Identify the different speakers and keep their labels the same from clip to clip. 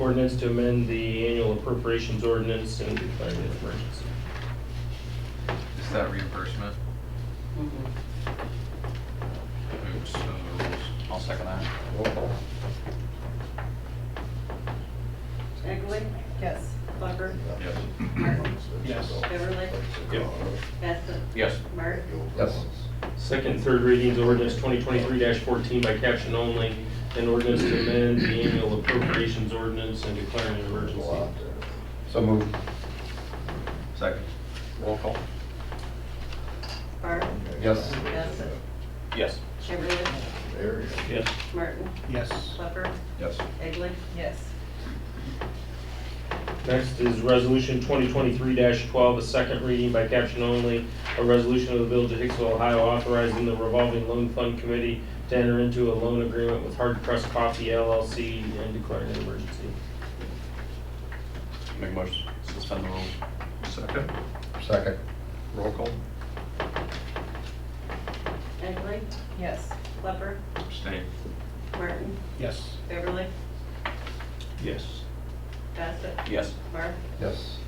Speaker 1: ordinance to amend the annual appropriations ordinance and declaring an emergency.
Speaker 2: Is that reimbursement?
Speaker 3: Mm-hmm.
Speaker 2: Oops, so the rules.
Speaker 3: I'll second that.
Speaker 4: Egley?
Speaker 5: Yes.
Speaker 4: Flucker?
Speaker 2: Yes.
Speaker 4: Martin?
Speaker 1: Yes.
Speaker 4: Beverly?
Speaker 1: Yep.
Speaker 4: Bassett?
Speaker 3: Yes.
Speaker 4: Mark?
Speaker 6: Yes.
Speaker 1: Second, third readings, ordinance twenty twenty-three fourteen by caption only, an ordinance to amend the annual appropriations ordinance and declaring an emergency.
Speaker 6: So moved.
Speaker 2: Second.
Speaker 3: Roll call?
Speaker 4: Barb?
Speaker 6: Yes.
Speaker 4: Bassett?
Speaker 3: Yes.
Speaker 4: Beverly?
Speaker 1: Yes.
Speaker 4: Martin?
Speaker 3: Yes.
Speaker 4: Flucker?
Speaker 2: Yes.
Speaker 4: Egley?
Speaker 5: Yes.
Speaker 1: Next is resolution twenty twenty-three twelve, a second reading by caption only, a resolution of the Village of Hicksville, Ohio authorizing the revolving loan fund committee to enter into a loan agreement with Hard Press Coffee LLC and declaring an emergency.
Speaker 3: Make a motion, to suspend the rules.
Speaker 2: Second.
Speaker 6: Second.
Speaker 3: Roll call?
Speaker 4: Egley?
Speaker 5: Yes.
Speaker 4: Flucker?
Speaker 2: Abstain.
Speaker 4: Martin?
Speaker 3: Yes.
Speaker 4: Beverly?
Speaker 3: Yes.
Speaker 4: Bassett?
Speaker 3: Yes.
Speaker 4: Barb?
Speaker 6: Yes.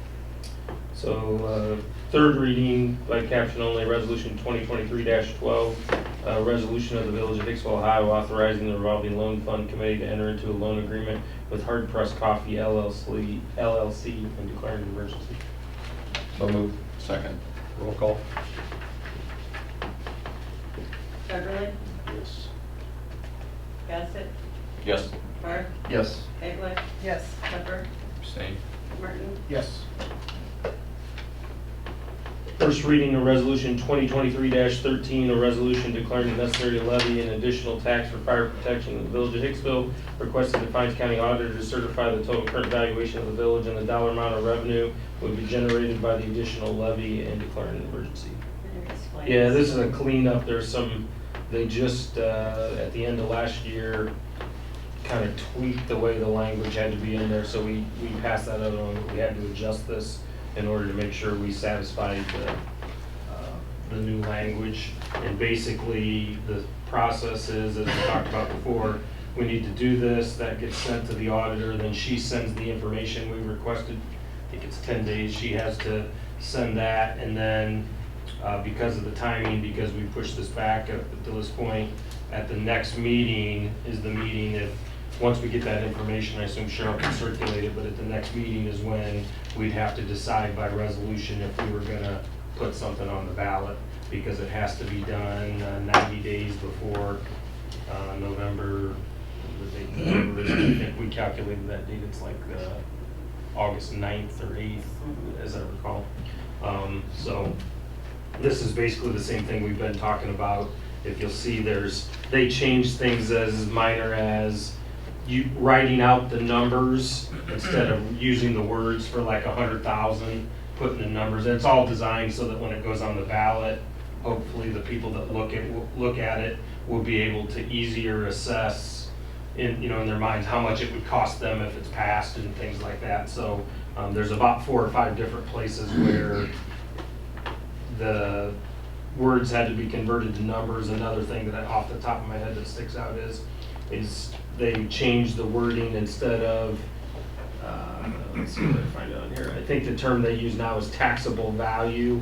Speaker 1: So, uh, third reading by caption only, resolution twenty twenty-three twelve, a resolution of the Village of Hicksville, Ohio authorizing the revolving loan fund committee to enter into a loan agreement with Hard Press Coffee LLC, LLC and declaring an emergency.
Speaker 6: So moved.
Speaker 3: Second. Roll call?
Speaker 4: Beverly?
Speaker 3: Yes.
Speaker 4: Bassett?
Speaker 3: Yes.
Speaker 4: Barb?
Speaker 6: Yes.
Speaker 4: Egley?
Speaker 5: Yes.
Speaker 4: Flucker?
Speaker 2: Abstain.
Speaker 4: Martin?
Speaker 3: Yes.
Speaker 1: First reading of Resolution 2023-13, a resolution declaring the necessary to levy an additional tax for fire protection in the village of Hicksville, requesting the Pines County Auditor to certify the total current valuation of the village and the dollar amount of revenue would be generated by the additional levy and declaring an emergency.
Speaker 4: Explain.
Speaker 1: Yeah, this is a cleanup, there's some, they just, uh, at the end of last year, kind of tweaked the way the language had to be in there, so we, we passed that other one, but we had to adjust this in order to make sure we satisfied the, uh, the new language. And basically, the process is, as we talked about before, we need to do this, that gets sent to the auditor, then she sends the information we requested. I think it's ten days, she has to send that, and then, uh, because of the timing, because we pushed this back up to this point, at the next meeting is the meeting if, once we get that information, I assume Cheryl can circulate it, but at the next meeting is when we'd have to decide by resolution if we were gonna put something on the ballot, because it has to be done uh, ninety days before, uh, November, the date, November is, I think we calculated that date, it's like, uh, August 9th or eighth, as I recall. Um, so, this is basically the same thing we've been talking about. If you'll see, there's, they changed things as minor as you writing out the numbers instead of using the words for like a hundred thousand, putting the numbers, and it's all designed so that when it goes on the ballot, hopefully the people that look at, look at it will be able to easier assess in, you know, in their minds, how much it would cost them if it's passed and things like that. So, um, there's about four or five different places where the words had to be converted to numbers. Another thing that I- off the top of my head that sticks out is, is they changed the wording instead of, uh, let's see what I find out here. I think the term they use now is taxable value.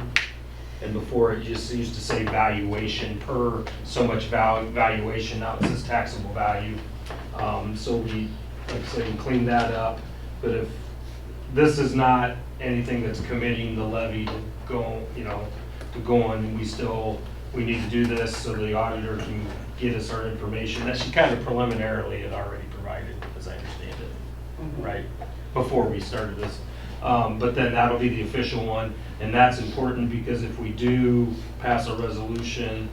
Speaker 1: And before it just used to say valuation per so much val- valuation, now it says taxable value. Um, so we, like I said, we cleaned that up. But if this is not anything that's committing the levy to go, you know, to go on, we still, we need to do this so the auditor can get us our information, that she kind of preliminarily had already provided, as I understand it, right, before we started this. Um, but then that'll be the official one, and that's important because if we do pass a resolution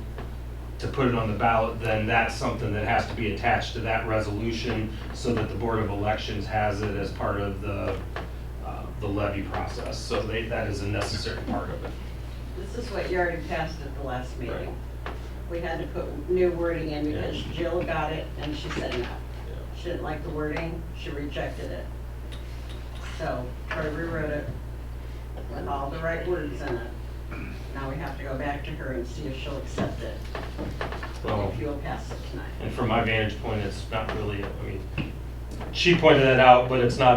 Speaker 1: to put it on the ballot, then that's something that has to be attached to that resolution so that the Board of Elections has it as part of the, uh, the levy process. So they, that is a necessary part of it.
Speaker 4: This is what you already passed at the last meeting. We had to put new wording in because Jill got it and she said no. She didn't like the wording, she rejected it. So I rewrote it with all the right words in it. Now we have to go back to her and see if she'll accept it,
Speaker 1: Well,
Speaker 4: if you'll pass it tonight.
Speaker 1: and from my vantage point, it's not really, I mean, she pointed that out, but it's not